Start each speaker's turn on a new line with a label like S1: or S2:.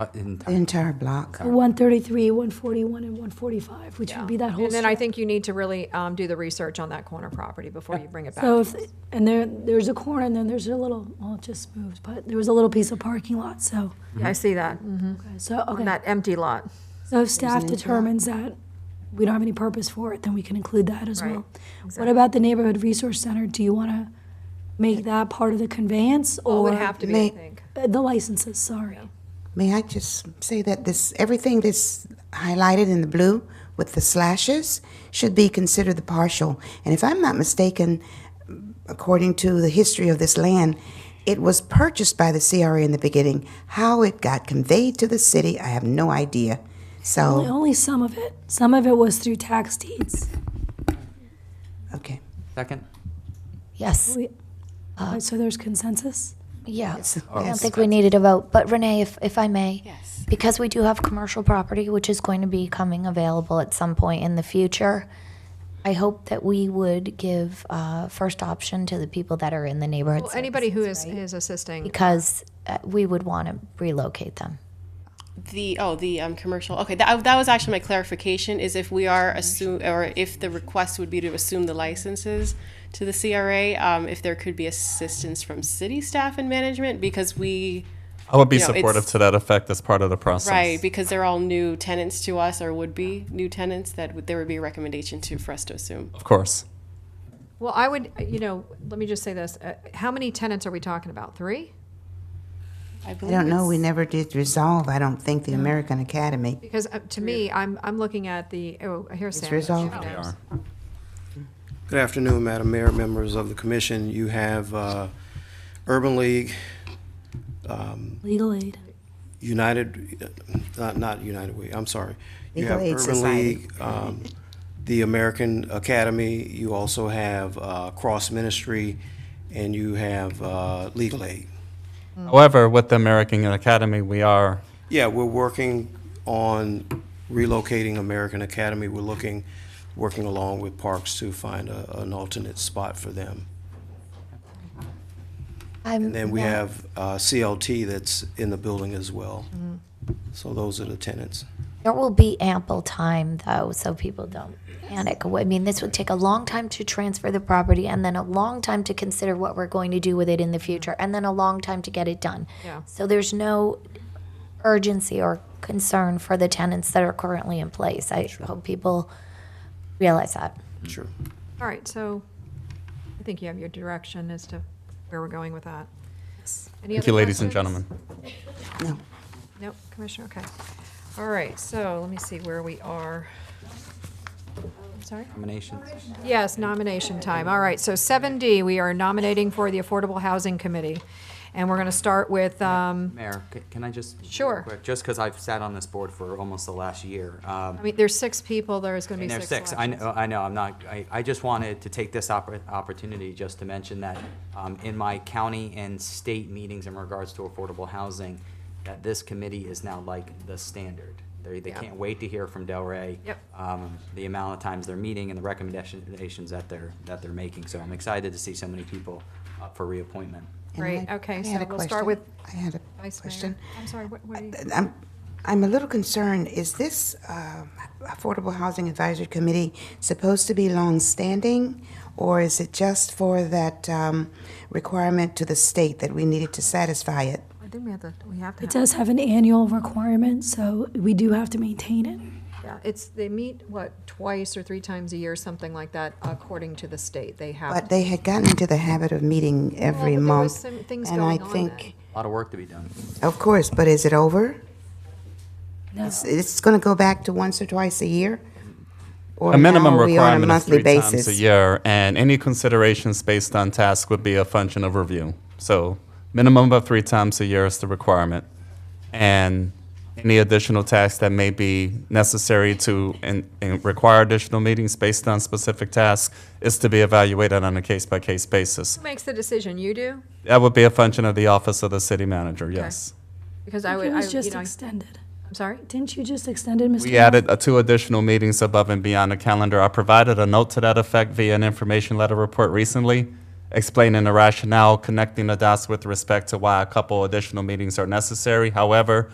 S1: Uh, in time.
S2: the entire block.
S3: 133, 141, and 145, which would be that whole
S4: And then I
S3: strip.
S4: think you need to really um, do the research on that corner property before you bring it back.
S3: So if, and there, there's a corner, and then there's a little, well, it just moved, but there was a little piece of parking lot, so,
S5: I see that,
S3: okay, so,
S5: on
S3: Mm-hmm. okay.
S5: that empty lot.
S3: So if staff determines that we don't have any purpose for it, then we can include that as
S4: Right,
S3: well. What about the Neighborhood Resource Center? Do you want to make that part of the conveyance,
S4: Well, It
S3: or?
S4: would have to be, I
S2: may-
S4: think.
S3: Uh, The licenses, sorry.
S2: May I just say that this, everything that's highlighted in the blue with the slashes should be considered the partial. And if I'm not mistaken, according to the history of this land, it was purchased by the CRA in the beginning. How it got conveyed to the city, I have no idea.
S3: Only,
S2: So,
S3: only some of it. Some of it was through tax deeds.
S2: okay.
S1: Second?
S6: Yes,
S3: We- uh, So there's consensus?
S6: yeah. I don't
S2: Yes.
S6: think we needed a vote, but Renee, if, if I may. Yes. Because we do have commercial property, which is going to be coming available at some point in the future, I hope that we would give, uh, first option to the people that are in the neighborhood.
S4: Well, anybody who is, is assisting,
S6: Because uh, we would want to relocate them.
S7: The oh the um, commercial okay that, that was actually my clarification is if we are assume or if the request would be to assume the licenses to the CRA um, if there could be assistance from city staff and management because we
S8: I would be
S7: You know,
S8: supportive
S7: it's-
S8: to that effect as part of the process.
S7: right because they're all new tenants to us or would be new tenants that would, there would be a recommendation to for us to assume
S8: Of course.
S4: well, I would, you know, let me just say this. uh, How many tenants are we talking about? Three?
S7: I
S2: I
S7: believe
S2: don't know,
S7: it's-
S2: we never did resolve, I don't think, the American Academy.
S4: Because uh, to me, I'm, I'm looking at the, oh, here's Sam.
S2: resolved.
S4: They
S1: are.
S9: Good afternoon, Madam Mayor, members of the commission. You have uh, Urban League,
S3: Legal aid.
S9: United, uh, not United Way, I'm sorry. You
S2: Legal
S9: have
S2: Aid
S9: Urban
S2: Society.
S9: League, um, the American Academy, you also have uh, Cross Ministry, and you have uh, Legal Aid.
S7: Mm.
S8: However, with the American Academy, we are
S9: Yeah, we're working on relocating American Academy. We're looking, working along with Parks to find a- an alternate spot for them.
S6: I'm,
S9: And then we have uh, CLT that's in the building as well. So those are the tenants.
S6: There will be ample time, though, so people don't panic. I mean, this would take a long time to transfer the property and then a long time to consider what we're going to do with it in the future and then a long time to get it done.
S4: Yeah.
S6: So there's no urgency or concern for the tenants that are currently in place. I hope people realize that.
S9: Sure.
S4: All right, so I think you have your direction as to where we're going with that. Any
S8: Thank
S4: other
S8: you, ladies and
S4: questions?
S8: gentlemen.
S2: No.
S4: Nope, Commissioner, okay. All right, so let me see where we are. I'm sorry?
S1: Nominations?
S4: Yes, nomination time. All right, so 7D, we are nominating for the Affordable Housing Committee. And we're going to start with, um,
S1: Mayor, c- can I just? real
S4: Sure.
S1: quick, Just because I've sat on this board for almost the last year. um,
S4: I mean, there's six people, there's going to
S1: And
S4: be
S1: there's
S4: six
S1: six, I
S4: elections.
S1: know, uh, I know, I'm not, I, I just wanted to take this oppor- opportunity just to mention that um, in my county and state meetings in regards to affordable housing, that this committee is now like the standard. They, they
S4: Yeah.
S1: can't wait to hear from Delray.
S4: Yep.
S1: um, The amount of times they're meeting and the recommendations that they're, that they're making. So I'm excited to see so many people up for reappointment.
S2: And
S4: Great,
S2: I-
S4: okay,
S2: I
S4: so
S2: had a
S4: we'll start
S2: question.
S4: with
S2: I had a
S4: Vice
S2: question. Uh,
S4: Mayor. I'm sorry, what, what do you?
S2: I'm, I'm a little concerned, is this uh, Affordable Housing Advisory Committee supposed to be longstanding? Or is it just for that um, requirement to the state that we needed to satisfy it?
S4: I think we have to, we have to.
S3: It does have an annual requirement, so we do have to maintain it.
S4: Yeah, it's, they meet, what, twice or three times a year, something like that, according to the state. They have,
S2: But they had gotten into the habit of meeting every
S4: but there was
S2: month.
S4: some things
S2: And I
S4: going on
S2: think,
S1: A lot of work to be done.
S2: of course, but is it over? It's, it's going to go back to once or twice a year? Or
S8: A minimum
S2: now are we on a
S8: requirement is
S2: monthly
S8: three times a
S2: basis?
S8: year, and any considerations based on task would be a function of review. So minimum of three times a year is the requirement. And any additional tasks that may be necessary to and, and require additional meetings based on specific tasks is to be evaluated on a case-by-case basis.
S4: who makes the decision? You do?
S8: That would be a function of the office of the city manager, yes.
S4: Because
S3: I
S4: I
S3: think
S4: would,
S3: It
S4: I,
S3: was
S4: you
S3: just
S4: know,
S3: extended.
S4: I'm sorry?
S3: Didn't you just extend it, Mr.?
S8: We
S3: Moore?
S8: added uh, two additional meetings above and beyond the calendar. I provided a note to that effect via an information letter report recently, explaining the rationale, connecting the dots with respect to why a couple additional meetings are necessary. However,